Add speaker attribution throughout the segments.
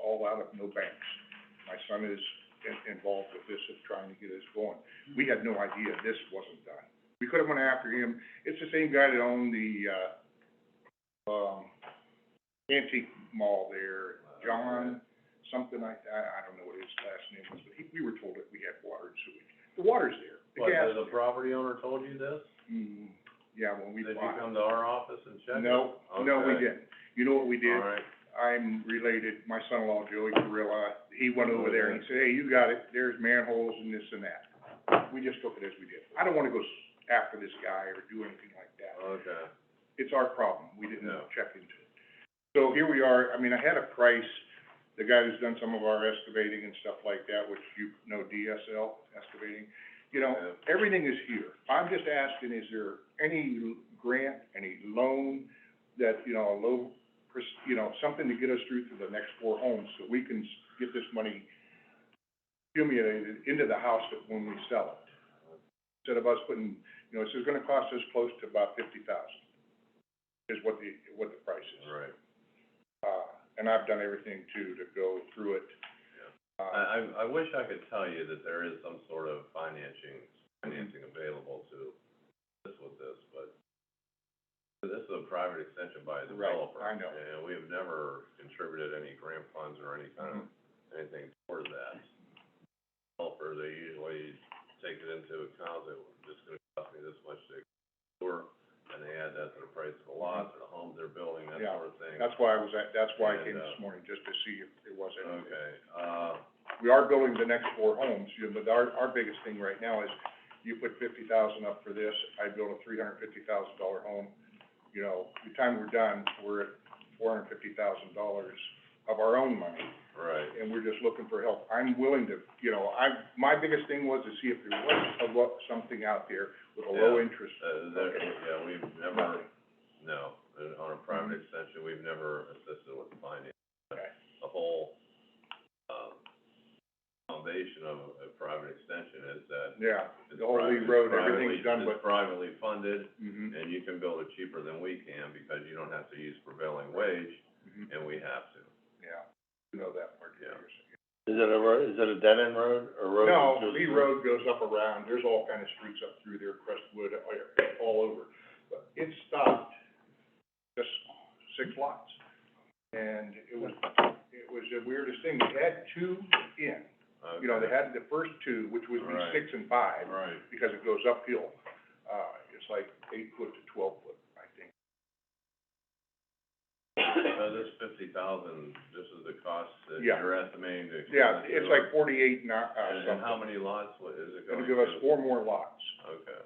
Speaker 1: all out of Milbanks. My son is in- involved with this, of trying to get us going. We had no idea this wasn't done. We could have went after him. It's the same guy that owned the, uh, um, antique mall there, John, something like that. I don't know what his last name was, but he, we were told that we had water and sewage. The water's there, the
Speaker 2: What,
Speaker 1: gas
Speaker 2: the
Speaker 1: is there.
Speaker 2: property owner told you this?
Speaker 1: Mm, yeah, when we
Speaker 2: Did you
Speaker 1: bought.
Speaker 2: come to our office and check it?
Speaker 1: No, no, we
Speaker 2: Okay.
Speaker 1: didn't. You know what we did?
Speaker 2: All right,
Speaker 1: I'm related, my son-in-law Joey Carrilla, he went over there and he said, hey, you got it, there's manholes and this and that. We just took it as we did. I don't wanna go s- after this guy or do anything like that.
Speaker 2: okay.
Speaker 1: It's our problem, we didn't
Speaker 2: No.
Speaker 1: check into it. So here we are, I mean, I had a price, the guy who's done some of our excavating and stuff like that, which you know DSL excavating, you know,
Speaker 2: Yeah.
Speaker 1: everything is here. I'm just asking, is there any l- grant, any loan that, you know, a low, pers- you know, something to get us through to the next four homes so we can s- get this money accumulated into the house that when we sell it? Instead of us putting, you know, this is gonna cost us close to about fifty thousand, is what the, what the price is.
Speaker 2: All right.
Speaker 1: Uh, and I've done everything too to go through it. Uh,
Speaker 2: I, I, I wish I could tell you that there is some sort of financing, financing available to this with this, but this is a private extension by a
Speaker 1: Right,
Speaker 2: developer.
Speaker 1: I know.
Speaker 2: And we have never contributed any grant funds or any kind of,
Speaker 1: Mm-hmm.
Speaker 2: anything toward that. Developer, they usually take it into account that we're just gonna cost me this much to explore, and they add that to the price of the lots or the homes they're building, that
Speaker 1: Mm-hmm. Yeah,
Speaker 2: sort of thing.
Speaker 1: that's why I was at, that's why I came
Speaker 2: And, uh,
Speaker 1: this morning, just to see if it was anything.
Speaker 2: Okay, uh,
Speaker 1: we are building the next four homes, you know, but our, our biggest thing right now is, you put fifty thousand up for this, I build a three hundred fifty thousand dollar home. You know, by the time we're done, we're at four hundred fifty thousand dollars of our own money,
Speaker 2: right.
Speaker 1: and we're just looking for help. I'm willing to, you know, I, my biggest thing was to see if there was a lo- something out there with a low
Speaker 2: Yeah.
Speaker 1: interest.
Speaker 2: Uh, there, yeah, we've never,
Speaker 1: Nothing.
Speaker 2: no, uh, on a private extension, we've never assisted with finding
Speaker 1: Okay.
Speaker 2: The whole, um, foundation of a private extension is that.
Speaker 1: Yeah,
Speaker 2: it's
Speaker 1: The whole Lee Road,
Speaker 2: private- privately-
Speaker 1: Oh, everything's done with-
Speaker 2: It's privately funded,
Speaker 1: mhm,
Speaker 2: and you can build it cheaper than we can, because you don't have to use prevailing wage,
Speaker 1: mhm,
Speaker 2: and we have to.
Speaker 1: yeah, you know that part, yeah.
Speaker 2: Yeah.
Speaker 3: Is it a road, is it a dead end road, or road?
Speaker 1: No,
Speaker 3: that's just-
Speaker 1: Lee Road goes up around, there's all kind of streets up through there, Crestwood, all- all over. But it stopped just six lots. And it was, it was the weirdest thing, they had two in, you know, they
Speaker 2: Okay.
Speaker 1: had the first two, which would be
Speaker 2: Right.
Speaker 1: six and five,
Speaker 2: Right,
Speaker 1: because it goes uphill. Uh, it's like eight foot to twelve foot, I think.
Speaker 2: so this fifty thousand, this is the cost that
Speaker 1: Yeah.
Speaker 2: you're estimating to.
Speaker 1: Yeah, it's like forty-eight, not, uh,
Speaker 2: And, and how
Speaker 1: something.
Speaker 2: many lots, what is it going
Speaker 1: It'll
Speaker 2: to?
Speaker 1: give us four more lots.
Speaker 2: Okay.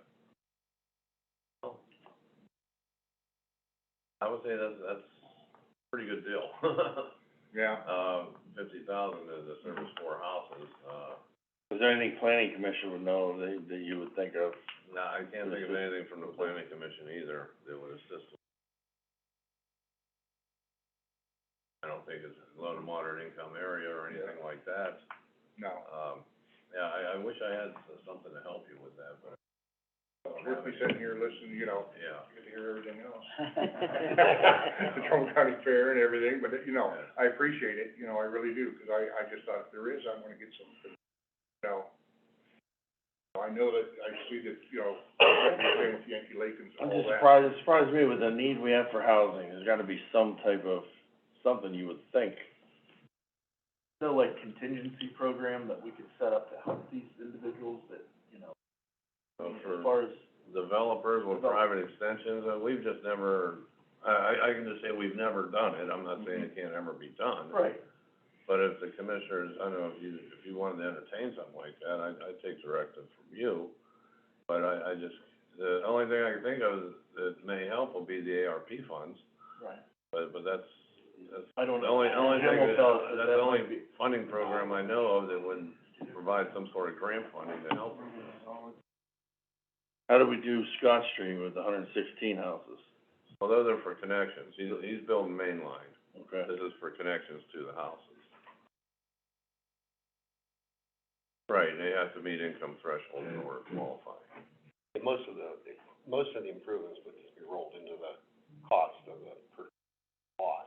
Speaker 2: I would say that's, that's a pretty good deal.
Speaker 1: Yeah,
Speaker 2: Uh, fifty thousand is a service for houses, uh,
Speaker 3: Is there anything planning commission would know that, that you would think of?
Speaker 2: no, I can't think of anything from the planning commission either that would assist. with- I don't think it's low to moderate income area or anything like that.
Speaker 1: no.
Speaker 2: Um, yeah, I, I wish I had s- something to help you with that, but,
Speaker 1: We're sitting here listening, you know,
Speaker 2: yeah.
Speaker 1: Good to hear everything else. The Trumbull County Fair and everything, but, you know, I appreciate it, you know, I really do, because I, I just thought if there is, I want to get some, you know. I know that, I see that, you know, playing with Yankee Lake and
Speaker 3: I'm
Speaker 1: all
Speaker 3: just
Speaker 1: that.
Speaker 3: surprised, it surprised me with the need we have for housing, there's gotta be some type of, something you would think.
Speaker 4: no like contingency program that we could set up to help these individuals that, you know,
Speaker 2: So
Speaker 4: as
Speaker 2: for-
Speaker 4: far as,
Speaker 2: developers with private extensions, uh, we've just never, I, I, I can just say we've never done it, I'm not saying it
Speaker 3: Mm-hmm.
Speaker 2: can't ever be done.
Speaker 4: right,
Speaker 2: But if the commissioners, I don't know, if you, if you wanted to entertain something like that, I, I'd take directive from you. But I, I just, the only thing I can think of that may help will be the ARP funds,
Speaker 4: right.
Speaker 2: but, but that's, that's
Speaker 4: I don't
Speaker 2: the
Speaker 4: know.
Speaker 2: only, only thing,
Speaker 4: Hamel
Speaker 2: that-
Speaker 4: felt that
Speaker 2: that's the only
Speaker 4: might be-
Speaker 2: funding program I know of that would provide some sort of grant funding to help.
Speaker 3: How do we do Scott Street with hundred and sixteen houses?
Speaker 2: Well, those are for connections, he's, he's building main line.
Speaker 3: Okay.
Speaker 2: This is for connections to the houses. Right, they have to meet income threshold in order to qualify.
Speaker 5: Most of the, most of the improvements would just be rolled into the cost of the per lot.